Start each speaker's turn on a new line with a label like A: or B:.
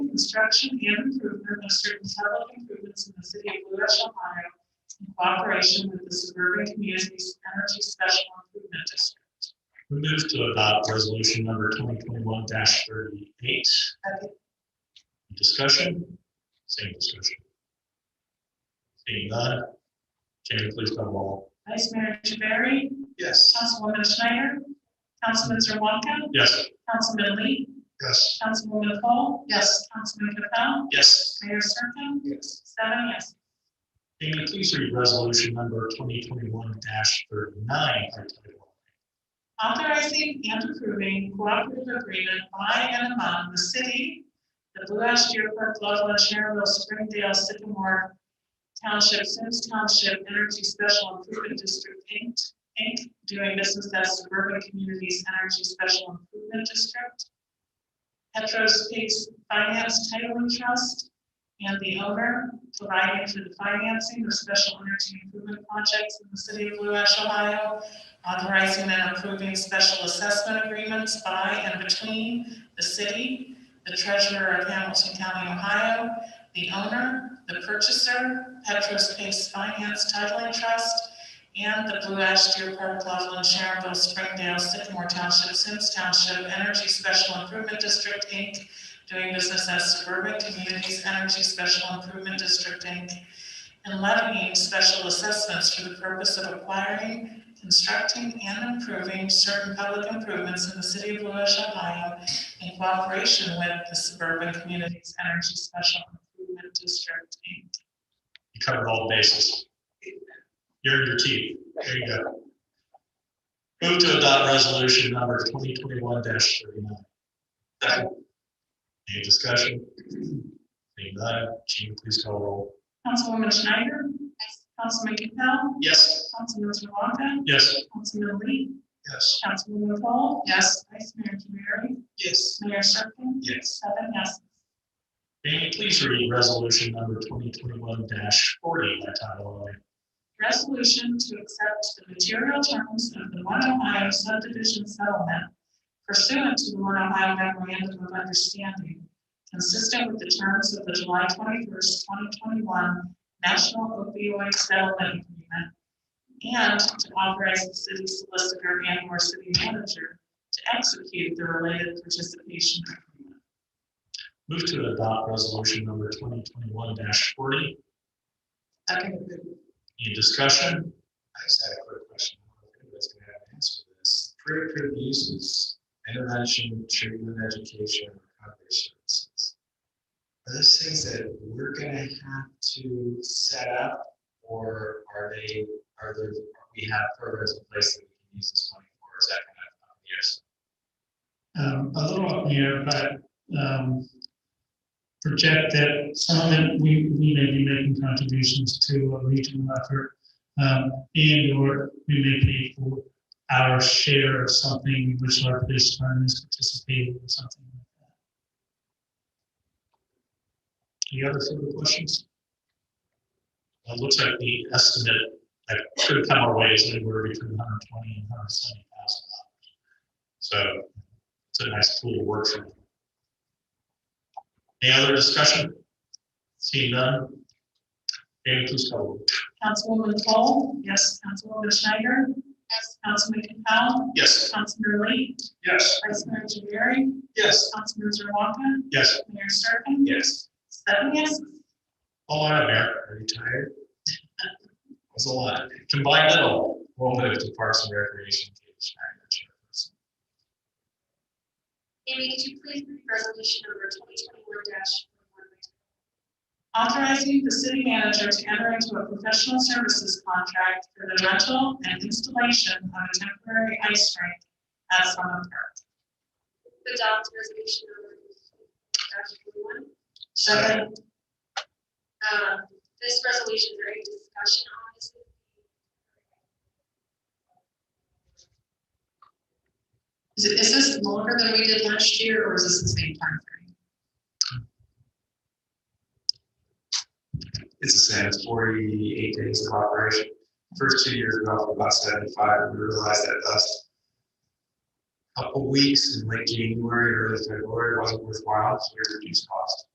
A: construction and improvement of certain public improvements in the city of Blue Ash, Ohio in cooperation with the suburban communities energy special improvement district.
B: We move to adopt resolution number twenty twenty-one thirty-eight. Discussion, same discussion. Seeing none, Jamie, please call the roll.
A: Vice Mayor Javari,
B: Yes.
A: Councilwoman Schneider, Councilman Zerwanka,
B: Yes.
A: Councilman Lee,
B: Yes.
A: Councilwoman Cole, yes, Councilman Capell,
B: Yes.
A: Mayor Serpen,
B: Yes.
A: seven yes.
B: Jamie, please read resolution number twenty twenty-one thirty-nine by title.
A: Authorizing and approving cooperative agreement by and among the city, the Blue Ash Deerpark, Loveland, Sherwood, Springdale, Sycamore Township, Sims Township Energy Special Improvement District, Inc., Inc., doing business as Suburban Communities Energy Special Improvement District, Petros Pigs Finance Titling Trust, and the owner providing for the financing of special energy improvement projects in the city of Blue Ash, Ohio, authorizing and approving special assessment agreements by and between the city, the treasurer of Hamilton County, Ohio, the owner, the purchaser, Petros Pace Finance Titling Trust, and the Blue Ash, Deer Park, Loveland, Sharonville, Springdale, Sycamore Township, Sims Township, Energy Special Improvement District, Inc., doing business as Suburban Communities Energy Special Improvement District, Inc., and levying special assessments for the purpose of acquiring, constructing and improving certain public improvements in the city of Blue Ash, Ohio in cooperation with the Suburban Communities Energy Special Improvement District, Inc.
B: You covered all bases. You're in your team. There you go. Move to adopt resolution number twenty twenty-one thirty-nine.
A: Second.
B: Any discussion? Seeing none, Jean, please call roll.
A: Councilwoman Schneider? Councilman Capell?
B: Yes.
A: Councilman Zerwanka?
B: Yes.
A: Councilman Lee?
B: Yes.
A: Councilwoman Paul? Yes. Vice Mayor Javari?
B: Yes.
A: Mayor Sherkin?
B: Yes.
A: Seven yes.
B: May you please read resolution number twenty twenty-one forty by title only?
A: resolution to accept the material terms of the One Ohio subdivision settlement pursuant to the One Ohio memorandum of understanding, consistent with the terms of the July twenty-first, twenty twenty-one National Opioid Settlement Agreement, and to authorize the city solicitor and or city manager to execute the related participation agreement.
B: Move to adopt resolution number twenty twenty-one forty.
A: Second.
B: Any discussion? I just had a quick question. I don't think anybody's gonna have an answer to this. Pre-approved uses, intervention, treatment, education, and recovery services. Are those things that we're gonna have to set up, or are they, are there, we have programs in place that we can use this money for, is that
C: um,
B: gonna happen in years?
C: a little up here, but, um, project that some of them, we, we may be making contributions to a regional effort, um, and or we may pay for our share of something which our police department is participating in, something like that.
B: Any other further questions? Well, It looks like the estimate that could come our way is anywhere between 120 and 170 thousand dollars. So it's a nice tool to work from. Any other discussion? Seeing none? Jamie, please call. the roll.
A: Councilwoman Cole? Yes. Councilwoman Schneider? Yes. Councilman Capell?
B: Yes.
A: Councilman Lee,
B: Yes.
A: Vice Mayor Javari,
B: Yes.
A: Councilman Zerwanka,
B: Yes.
A: Mayor Serpen,
B: Yes.
A: seven yes,
B: All right, Mayor, are you tired? That's a lot. Combine that all, we'll move to Parks and Recreation. Katie Schneider, Chairperson.
D: Amy, could you please read resolution number twenty twenty-one dash one?
A: authorizing the city manager to enter into a professional services contract for the rental and installation of a temporary ice rink at Summit Park.
D: Adopt resolution number dash one.
A: Second.
D: Um, this resolution, is there any discussion on this?
A: Is it, is this longer than we did last year, or is this the same timeframe?
E: It's the same, it's forty-eight days of operation. First two years, we were off about seventy-five, and we realized that last couple weeks in late January, early February, wasn't worthwhile, so we reduced cost.